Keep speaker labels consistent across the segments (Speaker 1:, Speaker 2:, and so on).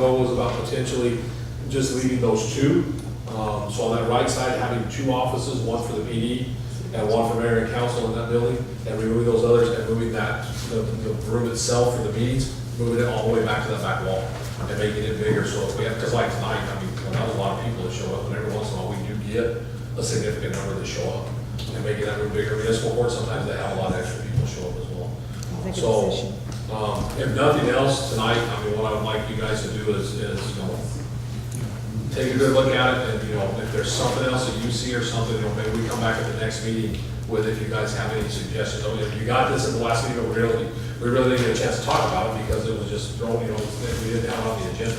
Speaker 1: Goal was about potentially just leaving those two. Um, So on that right side, having two offices, one for the PD and one for mayor and council in that building, and removing those others and moving that, the the room itself for the meetings, moving it all the way back to that back wall and making it bigger. So if we have, because like tonight, I mean, when that was a lot of people that show up, and every once in a while, we do get a significant number that show up and making that room bigger. Municipal court, sometimes they have a lot of extra people show up as well.
Speaker 2: Executive
Speaker 1: So,
Speaker 2: session.
Speaker 1: um, if nothing else tonight, I mean, what I would like you guys to do is, is, you know, take a good look at it, and, you know, if there's something else that you see or something, you know, maybe we come back at the next meeting with if you guys have any suggestions. I mean, if you got this in the last meeting, but we really, we really didn't get a chance to talk about it because it was just thrown, you know, we didn't have it on the agenda.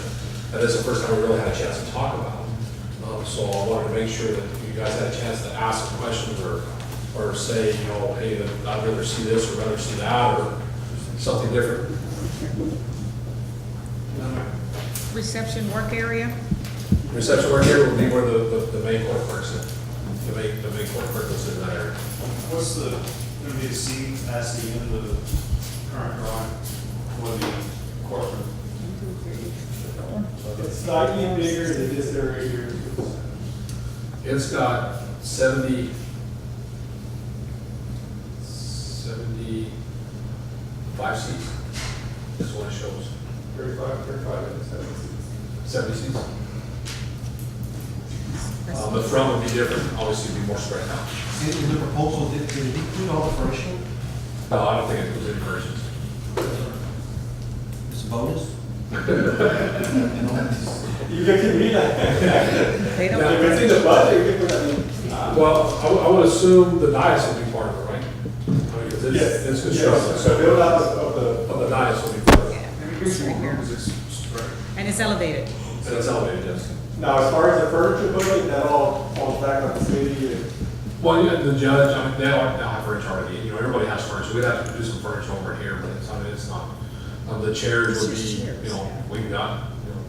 Speaker 1: And this is the first time we really had a chance to talk about it. Um, so I wanted to make sure that you guys had a chance to ask questions or, or say, you know, hey, that I'd rather see this or rather see that, or something different.
Speaker 2: Reception work area?
Speaker 1: Reception work here would be where the, the- the main court works in, the main, the main court clerk is in that area.
Speaker 3: What's the, gonna be the seating capacity in the current drawing for the courtroom? It's not any bigger than this area here.
Speaker 1: It's got seventy, seventy-five seats, is what it shows,
Speaker 3: Thirty-five, thirty-five, and seventy.
Speaker 1: seventy seats. Um, the front would be different, obviously it'd be more spread out.
Speaker 4: Did the proposal, did did it include all the furniture?
Speaker 1: No, I don't think it was any versions.
Speaker 4: It's a bonus?
Speaker 3: You can read that.
Speaker 2: They
Speaker 1: Yeah,
Speaker 2: don't,
Speaker 1: if it's in the budget,
Speaker 3: you can put that in.
Speaker 1: Uh, Well, I, would- I would assume the dais would be part of it, right? I mean, 'cause it's, it's construction,
Speaker 3: So
Speaker 1: so
Speaker 3: build out of the,
Speaker 1: the dais would be part of it.
Speaker 2: yeah, it's right here. And it's elevated.
Speaker 1: And it's elevated, yes.
Speaker 3: now, as far as the furniture building, that all falls back on the city and.
Speaker 1: Well, yeah, the judge, I mean, they all they all have furniture already, you know, everybody has furniture, we'd have to do some furniture over here, but it's, I mean, it's not, um, the chairs would
Speaker 2: It's just
Speaker 1: be,
Speaker 2: chairs,
Speaker 1: you know,
Speaker 2: yeah.
Speaker 1: we've got, you know.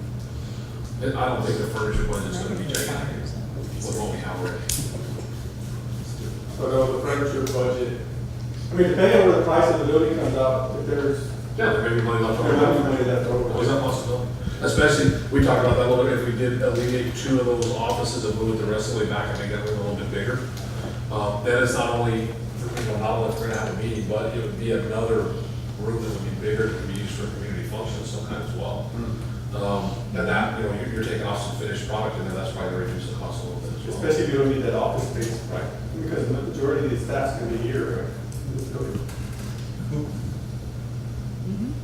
Speaker 1: I I don't think the furniture budget's gonna be gigantic with what we have already.
Speaker 3: So no, the furniture budget, I mean, depending on where the price of the building comes out, if there's,
Speaker 1: Yeah, there may be money left
Speaker 3: there might be
Speaker 1: over.
Speaker 3: money left over.
Speaker 1: Always a possibility, especially, we talked about that a little bit, if we did alleviate two of those offices and move it the rest of the way back and make that room a little bit bigger. Um, then it's not only, you know, not only if we're gonna have a meeting, but it would be another room that would be bigger, that could be used for community functions sometimes as well. Um, and that, you know, you're, you're taking off some finished product, and then that's probably gonna reduce the cost a little bit as well.
Speaker 3: Especially if you don't need that office space,
Speaker 1: Right.
Speaker 3: because the majority of these staff's gonna be here, right?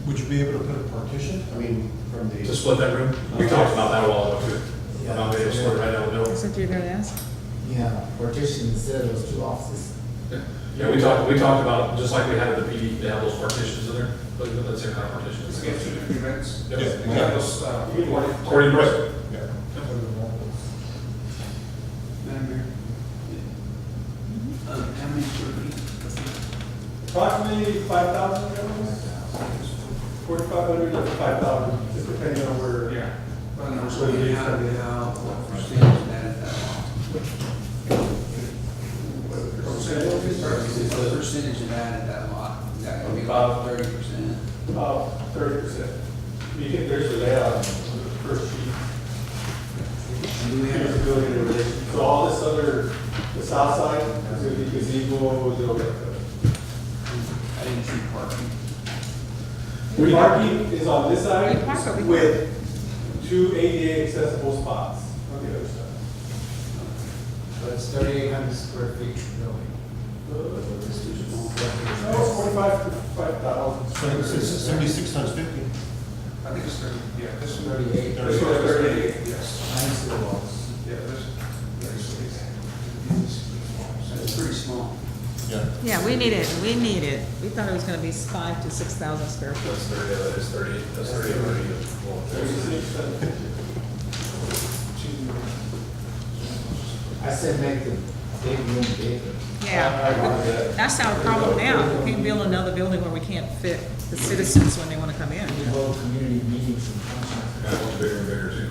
Speaker 4: Would you be able to put a partition? I mean, from
Speaker 1: To
Speaker 4: the.
Speaker 1: split that room, we talked about that a while ago too.
Speaker 5: Yeah.
Speaker 1: About being able to split it right down the middle.
Speaker 2: That's what you're gonna ask?
Speaker 5: Yeah, partition instead of those two offices.
Speaker 1: Yeah, we talked, we talked about, just like we had at the PD, they have those partitions in there, but that's their kind of partition. It's against two different events. Yeah, exactly.
Speaker 3: You can work.
Speaker 1: According to Brett.
Speaker 6: Madam Mayor? Uh, how many square feet?
Speaker 3: Approximately five thousand gallons, forty-five hundred to five thousand, just depending on where.
Speaker 6: Yeah. Well, no, so you have it out, what percentage of that is that lot? What percentage of that is that lot? Is that gonna be about thirty percent?
Speaker 3: About thirty percent. You can, there's a layout on the first sheet.
Speaker 6: And do we
Speaker 3: Here's
Speaker 6: have,
Speaker 3: the building in relation. So all this other, the south side, is gonna be gazebo, the,
Speaker 6: I didn't see parking.
Speaker 3: the parking is on this
Speaker 2: We park over
Speaker 3: side
Speaker 2: here.
Speaker 3: with two ADA accessible spots on the other side.
Speaker 5: But it's thirty-eight hundred square feet building.
Speaker 3: No, it's forty-five to five thousand.
Speaker 4: Seventy-six times fifty.
Speaker 6: I think it's thirty, yeah, this
Speaker 5: Thirty-eight.
Speaker 3: This one is thirty-eight.
Speaker 6: yes,
Speaker 5: Nine square walls.
Speaker 6: yeah, this, That's pretty small.
Speaker 2: Yeah, we need it, we need it. We thought it was gonna be five to six thousand square feet.
Speaker 1: That's thirty, that is thirty, that's thirty, thirty.
Speaker 3: Thirty-six, uh,
Speaker 5: I said make the big room bigger.
Speaker 2: Yeah, that's our problem now. We can't build another building where we can't fit the citizens when they wanna come in.
Speaker 5: We hold community meetings and functions.
Speaker 1: I want the bigger and bigger too.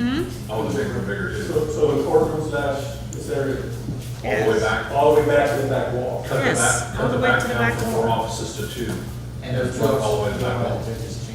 Speaker 2: Hmm?
Speaker 1: I want the bigger and bigger too.
Speaker 3: So, so the courtroom slash this area,
Speaker 1: All the way back.
Speaker 3: all the way back to the back wall.
Speaker 1: Cut the
Speaker 2: Yes,
Speaker 1: back,
Speaker 2: all
Speaker 1: cut
Speaker 2: the
Speaker 1: the
Speaker 2: way
Speaker 1: back
Speaker 2: to the
Speaker 1: down
Speaker 2: back
Speaker 1: from four
Speaker 2: wall.
Speaker 1: offices to two.
Speaker 5: And
Speaker 1: All the way to the back wall.
Speaker 5: They're just